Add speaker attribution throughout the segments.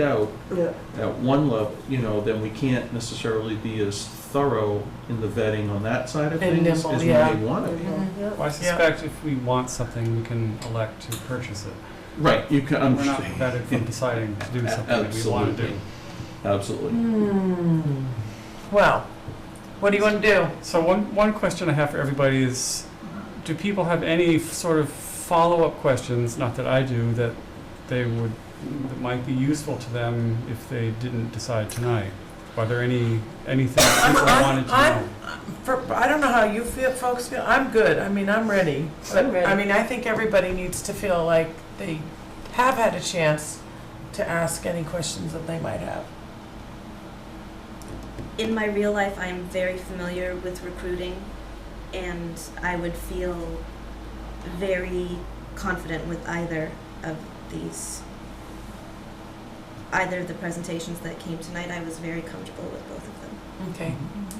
Speaker 1: out
Speaker 2: Yeah,
Speaker 1: at one level, you know, then we can't necessarily be as thorough in the vetting on that side of
Speaker 2: And
Speaker 1: things as
Speaker 2: nimble,
Speaker 1: we
Speaker 2: yeah.
Speaker 1: may want to be.
Speaker 3: Well, I suspect if we want something, we can elect to purchase it.
Speaker 1: Right, you can, I'm
Speaker 3: We're not prevented from deciding to do something that we want to do.
Speaker 1: Absolutely, absolutely.
Speaker 2: Hmm. Well, what do you want to do?
Speaker 3: So one, one question I have for everybody is, do people have any f- sort of follow-up questions, not that I do, that they would, that might be useful to them if they didn't decide tonight? Are there any, anything that people
Speaker 2: I'm-
Speaker 3: wanted to
Speaker 2: I'm-
Speaker 3: know?
Speaker 2: For, I don't know how you feel, folks feel. I'm good. I mean, I'm ready. But,
Speaker 4: I'm ready.
Speaker 2: I mean, I think everybody needs to feel like they have had a chance to ask any questions that they might have.
Speaker 5: in my real life, I am very familiar with recruiting, and I would feel very confident with either of these. Either of the presentations that came tonight, I was very comfortable with both of them.
Speaker 2: Okay.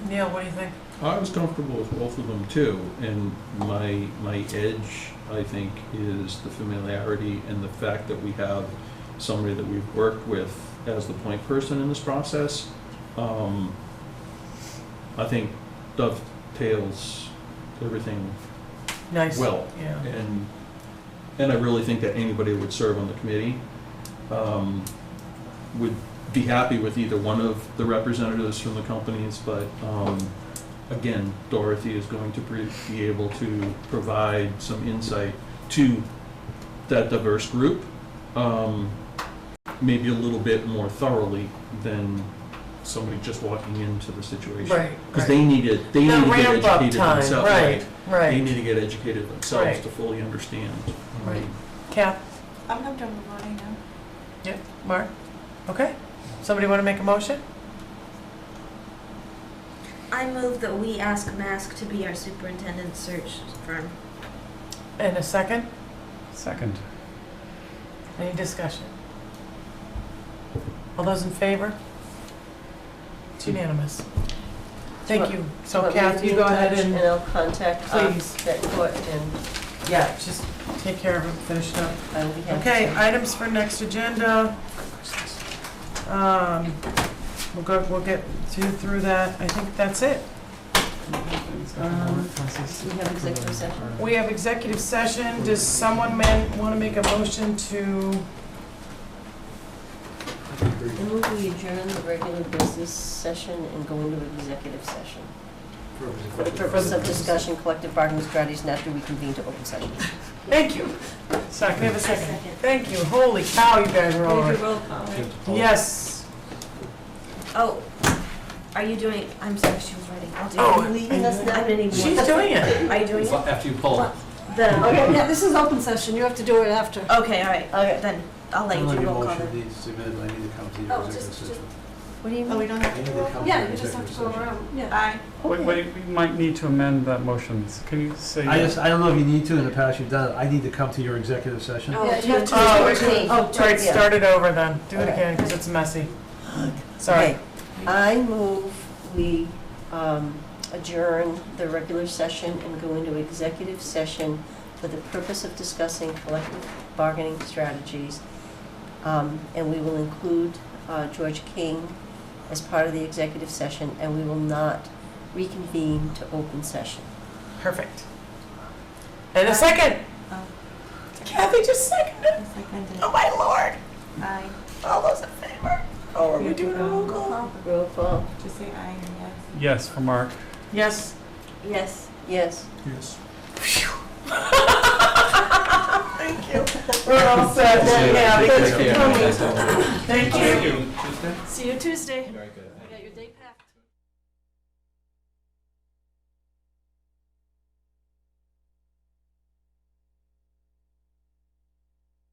Speaker 2: Neil, what do you think?
Speaker 1: I was comfortable with both of them too, and my, my edge, I think, is the familiarity and the fact that we have somebody that we've worked with as the point person in this process. Um, I think dovetails everything
Speaker 2: Nice.
Speaker 1: well.
Speaker 2: Yeah.
Speaker 1: And, and I really think that anybody that would serve on the committee um, would be happy with either one of the representatives from the companies, but um, again, Dorothy is going to be be able to provide some insight to that diverse group, um, maybe a little bit more thoroughly than somebody just walking into the situation.
Speaker 2: Right.
Speaker 1: Because they need to, they
Speaker 2: The
Speaker 1: need to get
Speaker 2: ramp up
Speaker 1: educated
Speaker 2: time,
Speaker 1: themselves.
Speaker 2: right,
Speaker 1: They
Speaker 2: Right.
Speaker 1: need to get educated themselves
Speaker 2: Right.
Speaker 1: to fully understand. um,
Speaker 2: Right. Kath,
Speaker 6: I'm not done with mine now.
Speaker 2: Mark? Okay. Somebody want to make a motion?
Speaker 5: I move that we ask Mask to be our superintendent search firm.
Speaker 2: And a second?
Speaker 3: Second.
Speaker 2: Any discussion? All those in favor? It's unanimous. Thank you. So
Speaker 4: Want me to
Speaker 2: Kath,
Speaker 4: be
Speaker 2: you
Speaker 4: in
Speaker 2: go ahead
Speaker 4: touch
Speaker 2: and,
Speaker 4: And I'll contact um,
Speaker 2: Please.
Speaker 4: that court and
Speaker 2: yeah, just take care of it, finish it up.
Speaker 4: I will be happy.
Speaker 2: Okay, items for next agenda. Um, We'll go, we'll get to, through that. I think that's it. Um,
Speaker 4: Uh, We have executive session.
Speaker 2: We have executive session. Does someone want to make a motion to,
Speaker 4: Then we will adjourn the regular business session and go into executive session for the purpose of discussion, collective bargaining strategies, and after we convene to open session.
Speaker 2: thank you. Second, we have a second.
Speaker 5: Second.
Speaker 2: Thank you. Holy cow, you guys are all
Speaker 5: Can we
Speaker 2: right.
Speaker 5: do roll call, right?
Speaker 2: Yes.
Speaker 5: Oh, are you doing, I'm sorry, she was writing. I'll do it.
Speaker 2: Oh,
Speaker 4: Are you leaving us
Speaker 5: I
Speaker 4: now?
Speaker 5: didn't even.
Speaker 2: She's doing it.
Speaker 5: Are you doing it?
Speaker 7: After you pull.
Speaker 5: The,
Speaker 4: Okay, yeah, this is open session, you have to do it after.
Speaker 5: okay, all right.
Speaker 4: Okay.
Speaker 5: Then I'll let you
Speaker 7: Unless
Speaker 5: do
Speaker 7: your
Speaker 5: roll call.
Speaker 7: motion needs to be amended, I need to come to
Speaker 4: Oh,
Speaker 7: your
Speaker 4: just-
Speaker 7: executive session.
Speaker 4: What do you
Speaker 6: Oh, we
Speaker 4: mean?
Speaker 6: don't
Speaker 7: I need
Speaker 6: have
Speaker 7: to
Speaker 6: to
Speaker 7: come
Speaker 6: roll?
Speaker 7: to
Speaker 4: Yeah,
Speaker 7: your
Speaker 4: you just have
Speaker 7: executive
Speaker 4: to go
Speaker 7: session.
Speaker 4: around, yeah.
Speaker 6: Aye.
Speaker 3: Wait, wait, we might need to amend that motion. Can you say?
Speaker 7: I just, I don't know if you need to, in the past you've done it, I need to come to your executive session.
Speaker 4: Yeah, you have to
Speaker 2: Oh,
Speaker 4: do it.
Speaker 2: Oh, all right,
Speaker 4: Yeah.
Speaker 2: start it over then. Do it
Speaker 4: Okay.
Speaker 2: again, because it's messy. Sorry.
Speaker 4: Okay. I move we um, adjourn the regular session and go into executive session for the purpose of discussing collective bargaining strategies. Um, And we will include uh, George King as part of the executive session, and we will not reconvene to open session.
Speaker 2: Perfect. And a second.
Speaker 6: Oh.
Speaker 2: Kathy just seconded.
Speaker 6: It's like I did.
Speaker 2: Oh, my lord.
Speaker 6: Aye.
Speaker 2: All those in favor? Oh, are we doing a roll call?
Speaker 4: Roll call.
Speaker 6: Just say aye and yes.
Speaker 3: Yes, for Mark.
Speaker 2: Yes.
Speaker 5: Yes.
Speaker 4: Yes.
Speaker 1: Yes.
Speaker 2: Thank you. We're all set.
Speaker 7: Thank you.
Speaker 2: Yeah, because-
Speaker 7: Thank you.
Speaker 2: Thank you.
Speaker 5: See you Tuesday.
Speaker 7: Very good.